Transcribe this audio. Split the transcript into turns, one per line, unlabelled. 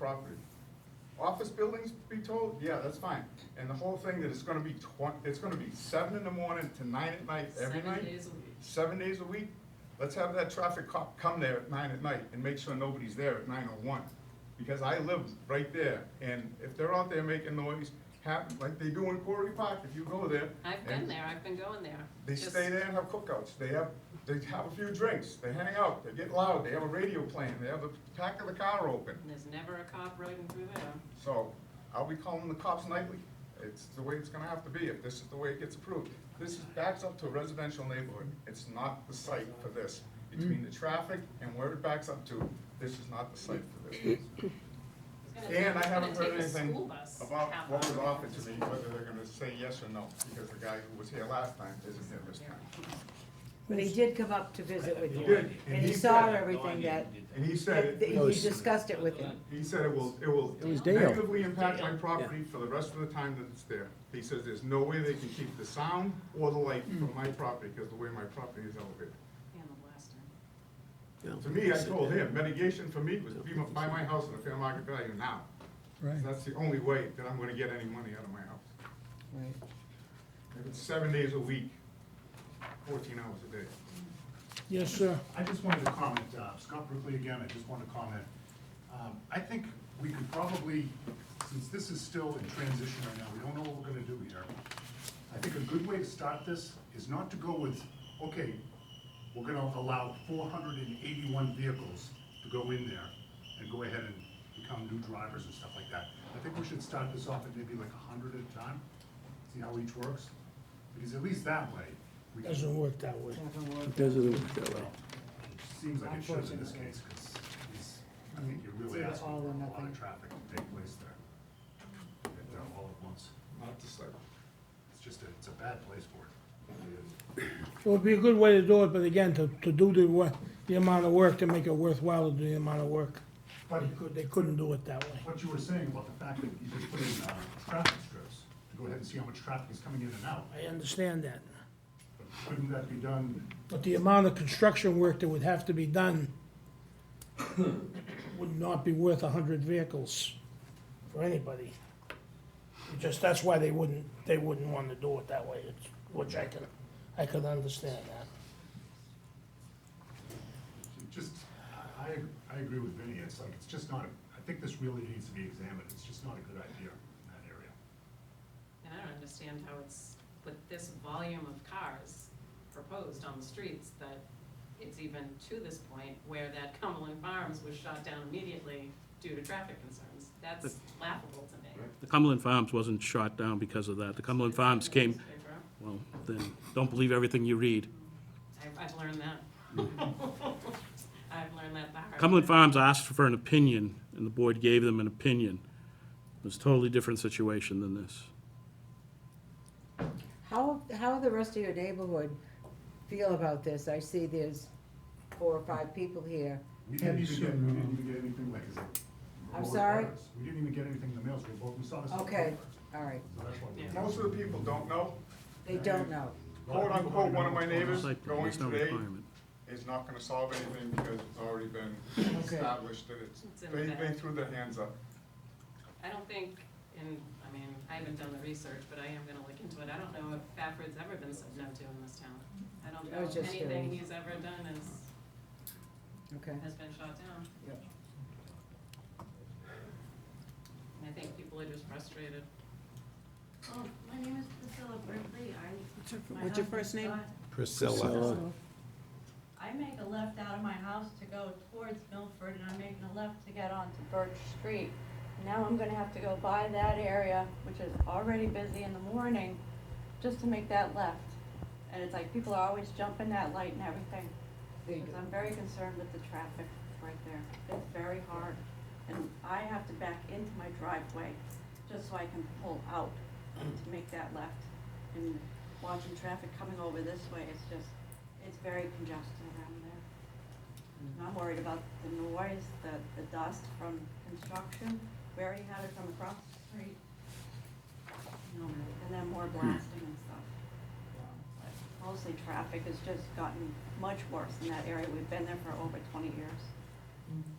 property. Office buildings, be told, yeah, that's fine. And the whole thing that it's gonna be twen- it's gonna be seven in the morning to nine at night, every
Seven
night,
days a week.
seven days a week, let's have that traffic cop come there at nine at night and make sure nobody's there at nine oh one. Because I live right there, and if they're out there making noise, happen, like they do in Quarry Park, if you go there.
I've
and-
been there, I've been going there.
they
Just-
stay there and have cookouts, they have, they have a few drinks, they hang out, they get loud, they have a radio playing, they have the back of the car open.
and There's never a cop riding through there.
So I'll be calling the cops nightly. It's the way it's gonna have to be if this is the way it gets approved. This is backs up to a residential neighborhood. It's not the site for this. Between the traffic and where it backs up to, this is not the site for this.
It's gonna take-
And I
it's gonna
haven't heard
take a
anything
school bus
about
half
what was
hour.
offered to me, whether they're gonna say yes or no, because the guy who was here last time isn't here this time.
But he did come up to visit with
He
you,
did,
and he
said
saw
it.
everything that,
And he said
that
it.
that you discussed it with him.
He said it will, it will
It was Dale.
negatively impact my property for the rest of the time that it's there. He says there's no way they can keep the sound or the light from my property because the way my property is elevated.
And the
To
blaster.
me, I told him, mitigation for me was be my- buy my house at a fair market value now.
Right.
That's the only way that I'm gonna get any money out of my house. If it's seven days a week, fourteen hours a day.
Yes, sir.
I just wanted to comment, uh, Scott Brookley again, I just wanted to comment. Um, I think we could probably, since this is still in transition right now, we don't know what we're gonna do here. I think a good way to start this is not to go with, okay, we're gonna allow four hundred and eighty-one vehicles to go in there and go ahead and become new drivers and stuff like that. I think we should start this off at maybe like hundred at a time, see how each works, because at least that way, we can
Doesn't work that way.
Right.
Doesn't work that way.
Seems like it should in this
Unfortunately.
case, because it's, I think you're
It's
really
either
asking
all
for
or
a lot
nothing.
of traffic to take place there. And, uh, all at once.
Not the site.
It's just, a- it's a bad place for it.
It would be a good way to do it, but again, to, to do the work, the amount of work, to make it worthwhile to do the amount of work.
But
They could, they couldn't do it that way.
what you were saying about the fact that you could put in, uh, traffic strips to go ahead and see how much traffic is coming in and out,
I understand that.
couldn't that be done?
But the amount of construction work that would have to be done would not be worth a hundred vehicles for anybody. It Just, that's why they wouldn't, they wouldn't want to do it that way, it's- which I can, I could understand that.
Just, I, I- I agree with Vinnie, it's like, it's just not, a- I think this really needs to be examined, it's just not a good idea in that area.
And I don't understand how it's, with this volume of cars proposed on the streets, that it's even to this point where that Cumberland Farms was shut down immediately due to traffic concerns. That's laughable to me.
The Cumberland Farms wasn't shot down because of that. The Cumberland Farms came,
Newspaper.
well, then, don't believe everything you read.
I've, I've learned that. I've learned that the hard way.
Mm. Cumberland Farms asked for an opinion, and the board gave them an opinion. It was a totally different situation than this.
How, how the rest of your neighborhood feel about this? I see there's four or five people here.
We didn't even get, we didn't even get anything like, is it?
I'm sorry?
We didn't even get anything in the mail, so we both, we saw this. on
Okay,
paper.
all right,
So that's why we-
Yeah.
Most of the people don't know,
they don't know.
quote unquote, one of my neighbors
Site plan,
going
there's no
today
requirement.
is not gonna solve anything because it's already been
Okay.
established that it's,
It's in
they,
the
they
back.
threw their hands up.
I don't think, and, I mean, I haven't done the research, but I am gonna look into it, I don't know if Bafford's ever been said no to in this town. I don't
I was
know,
just
anything
curious.
he's ever done is,
Okay,
has been shot down.
Yep.
And I think people are just frustrated.
Oh, my name is Priscilla Brinkley, I. my
what's your
husband
first name?
got-
Priscilla.
I make a left out of my house to go towards Milford, and I'm making a left to get onto Birch Street. Now I'm gonna have to go by that area, which is already busy in the morning, just to make that left. And it's like, people are always jumping that light and everything.
They do.
Because I'm very concerned with the traffic right there. It's very hard. And I have to back into my driveway just so I can pull out to make that left. And watching traffic coming over this way, it's just, it's very congested around there. And I'm worried about the noise, the, the dust from construction. We already had it from across the street. You know, and then more blasting and stuff. But Mostly traffic has just gotten much worse in that area. We've been there for over twenty years.